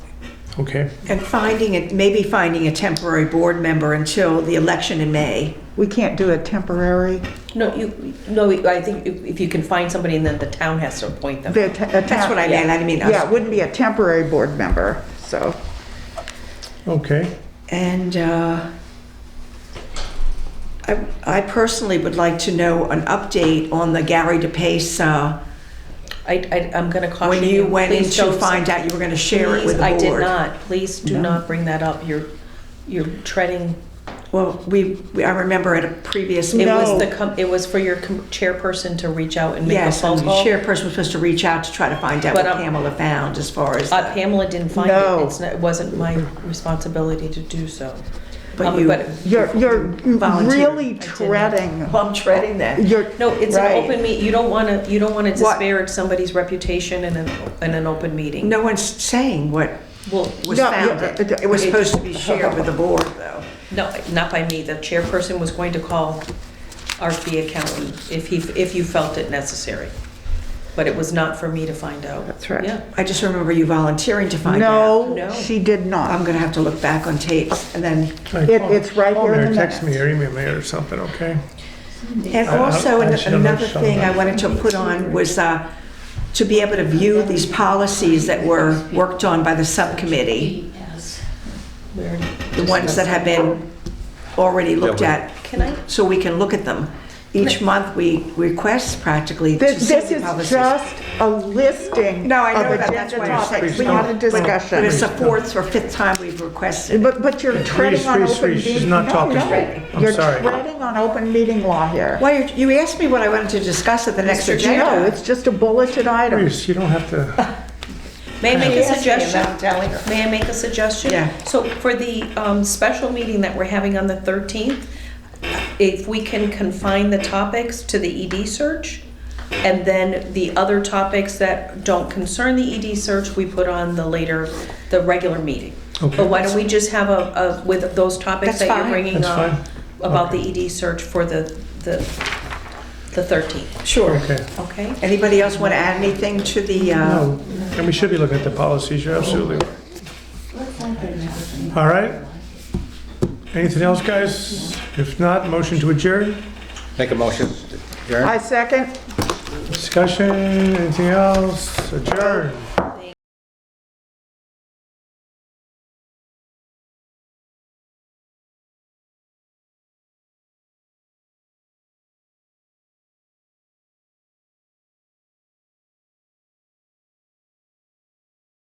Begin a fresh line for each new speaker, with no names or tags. Okay,
And finding, it maybe finding a temporary board member until the election in May.
We can't do a temporary,
No, you, no, I think if if you can find somebody and then the town has to appoint them.
the te- a
That's what I
tem-
mean, I mean. I was-
Yeah, it wouldn't be a temporary board member, so.
okay.
And uh, I I personally would like to know an update on the Gary DePace, uh,
I, I, I'm gonna caution
when
you.
you went in
please
to
don't-
find out you were going to share it with the
Please, I
board.
did not. Please do not bring that up. You're, you're treading,
Well, we, we- I remember at a previous
it
meeting.
was
No.
the, com- it was for your com- chairperson to reach out and make a
Yes, and
phone
the
call.
chairperson was supposed to reach out to try to find out what
But, um,
Pamela found as far as.
Uh, Pamela didn't find
No.
it. It's not, it wasn't my responsibility to do so.
But
Um,
you-
You're, you're
Volunteer.
really treading,
Well, I'm treading that.
you're.
No, it's an
right.
open meet, you don't wanna, you don't wanna
What?
disparage somebody's reputation in an, in an open meeting.
No one's saying what
Well,
was
No,
found.
yeah,
It was
it-
supposed to be shared with the board, though.
no, not by me, the chairperson was going to call our fee accountant if he, if you felt it necessary. But it was not for me to find out.
That's right.
Yeah,
I just remember you volunteering to find out.
No,
No.
she did
I'm
not.
going to have to look back on tapes and then,
Hey,
It-
call-
it's right
call
here
me
in
or
the
Text me
minutes.
or email me or something, okay?
and
I- I-
also
I
an-
should have
another
shown
thing I
that.
wanted to put on was uh, to be able to view these policies that were worked on by the subcommittee,
we already
the ones that
discussed
have been already looked at,
Can I,
so we can look at them. Each month, we request practically to
This
see
this
the
is
policies.
just a listing
No, I know
of
that, that's
agenda
why I'm saying.
topics, not a
Please
But it's
discussion.
the fourth or fifth time we've requested.
But, but you're treading
please,
on
please,
open
please,
meeting.
she's not
no,
talking.
no.
I'm
You're
sorry.
treading on open meeting law here.
Why, you you asked me what I wanted to discuss at the next agenda.
No, it's just a bulleted item.
Please, you don't have to,
may I make a suggestion?
telling her.
May I make a suggestion?
Yeah.
So for the um, special meeting that we're having on the 13th, if we can confine the topics to the ED search, and then the other topics that don't concern the ED search, we put on the later, the regular meeting.
Okay.
But why don't we just have a, a- with those
That's
topics that you're
fine.
bringing
That's fine.
up about the ED search for the, the the 13th,
Sure.
okay.
okay?
Anybody else want to add anything to the, uh,
No, and we should be looking at the policies, you're absolutely right. All right? Anything else, guys? If not, motion to adjourn,
Make a motion, Jerry?
I second.
discussion, anything else? Adjourn.